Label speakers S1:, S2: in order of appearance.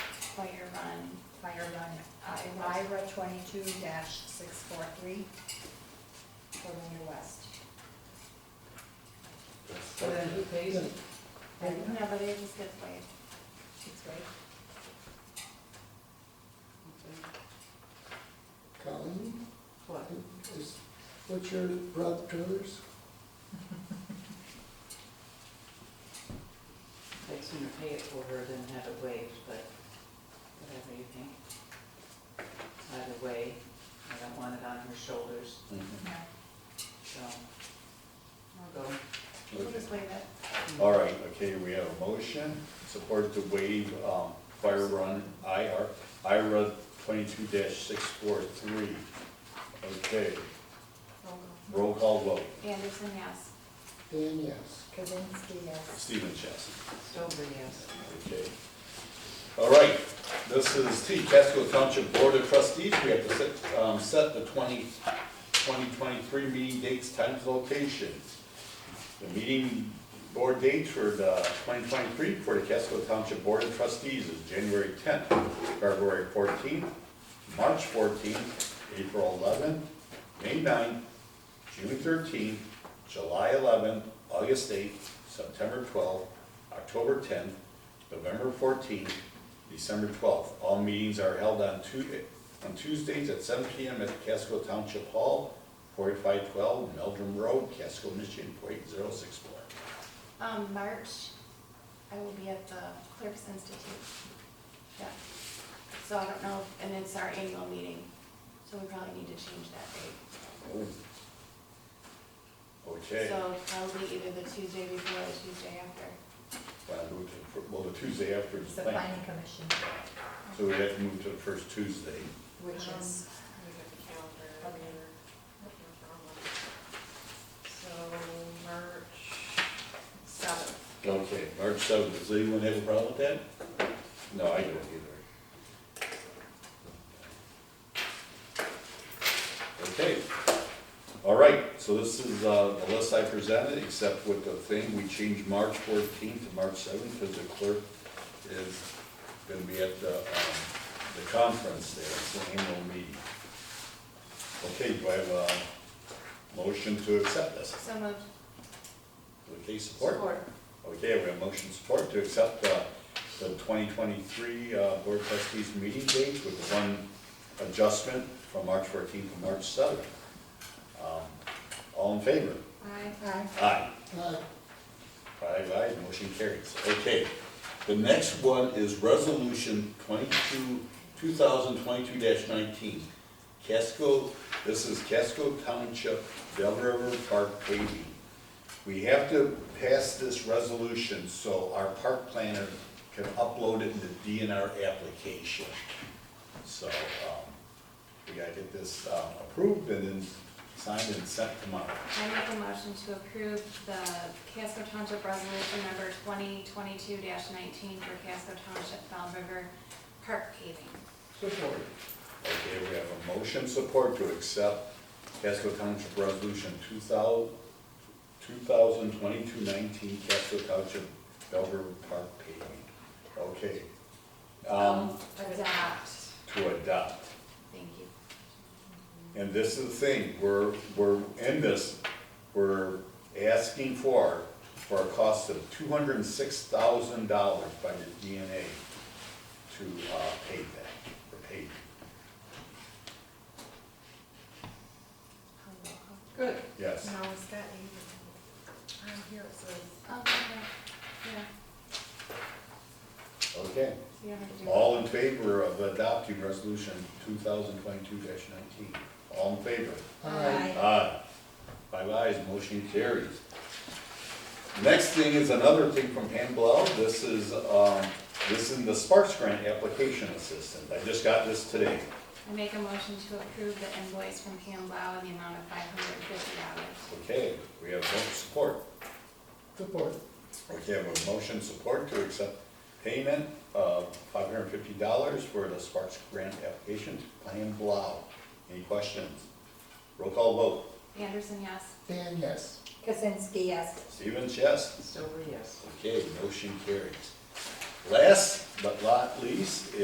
S1: Fire Run, uh,
S2: Fire Run
S1: Iowa.
S2: IRA twenty-two six four three, Columbia West.
S3: So then who pays it?
S2: And
S1: No, but it is good way.
S2: it's great.
S4: Colleen,
S3: What?
S4: is, what's your broad trailers?
S3: I'd sooner pay it for her than have it waived, but whatever you think. Either way, I don't want it on her shoulders, so I'll go.
S1: We'll just waive it.
S5: Mm-hmm. All right, okay, we have a motion, support to waive um, fire run IR, IRA twenty-two six four three. Okay,
S2: Roll call.
S5: roll call vote,
S1: Anderson, yes.
S4: Dan, yes.
S2: Kazinsky, yes.
S5: Stephen Chess.
S3: Stover, yes.
S5: Okay. All right, this is the Casco Township Board of Trustees. We have to set, um, set the 20 2023 meeting dates, times, locations. The meeting board dates for the twenty twenty-three for the Casco Township Board of Trustees is January tenth, February fourteenth, March fourteenth, April eleventh, May 9th, June thirteenth, July eleventh, August eighth, September twelfth, October tenth, November fourteenth, December twelfth. All meetings are held on Tuesday, on Tuesdays at seven P M at the Casco Township Hall, forty-five twelve Meldrum Road, Casco, Michigan, point zero six four.
S1: Um, March, I will be at the Clerks Institute. Yeah. So I don't know, and it's our annual meeting, so we probably need to change that date.
S5: Okay,
S1: So probably either the Tuesday before or Tuesday after.
S5: well, move to the fir- well, the Tuesday after is
S2: It's the
S5: planned,
S2: planning commission,
S5: so we have to move to the first Tuesday.
S2: which is,
S6: Look at the calendar, I mean, looking for one. So, March seventh.
S5: Okay, March seventh, does anyone have a problem with that? No, I don't either. Okay, all right, so this is uh, the list I presented, except with the thing, we changed March fourteenth to March seventh, because the clerk is gonna be at the, um, the conference there, it's an annual meeting. Okay, do I have a motion to accept this?
S1: So moved.
S5: Okay, support? Okay, we have motion support to accept uh, the 2023 uh, Board of Trustees meeting date with the one adjustment from March 14th to March 7th. Um, All in favor?
S1: Aye.
S2: aye.
S5: Aye.
S4: Aye.
S5: Five ayes, motion carries. Okay, the next one is Resolution 22, 2022-19. Casco, this is Casco Township, Del River Park paving. We have to pass this resolution so our park planner can upload it in the DNR application. So, um, we gotta get this um, approved and then signed and sent tomorrow.
S1: I make a motion to approve the Casco Township Resolution Number 2022-19 for Casco Township Found River Park paving.
S3: Support.
S5: Okay, we have a motion support to accept Casco Township Resolution 2000 2022-19, Casco Township Belver Park paving. Okay, um,
S1: Adopt.
S5: to adopt.
S1: Thank you.
S5: And this is the thing, we're, we're in this, we're asking for, for a cost of two hundred and six thousand dollars by the DNA to, uh, pay that, or pay.
S3: Good.
S5: Yes.
S6: Now, is that even, I'm here, it says.
S1: Oh, yeah, yeah,
S5: Okay.
S1: so you don't have to do. it.
S5: All in favor of adopting resolution two thousand twenty-two nineteen? All in favor?
S4: Aye.
S5: Aye. Five ayes, motion carries. Next thing is another thing from Pam Blau. This is, um, this is the Sparks Grant Application Assistant. I just got this today.
S1: I make a motion to approve the invoice from Pam Blau in the amount of five hundred and fifty dollars.
S5: Okay, we have vote support.
S4: Support.
S5: Okay, I have a motion support to accept payment of five hundred and fifty dollars for the Sparks Grant Application to Pam Blau. Any questions? Roll call vote.
S1: Anderson, yes.
S4: Dan, yes.
S2: Kazinsky, yes.
S5: Stephen Chess.
S3: Stover, yes.
S5: Okay, motion carries. Last but not least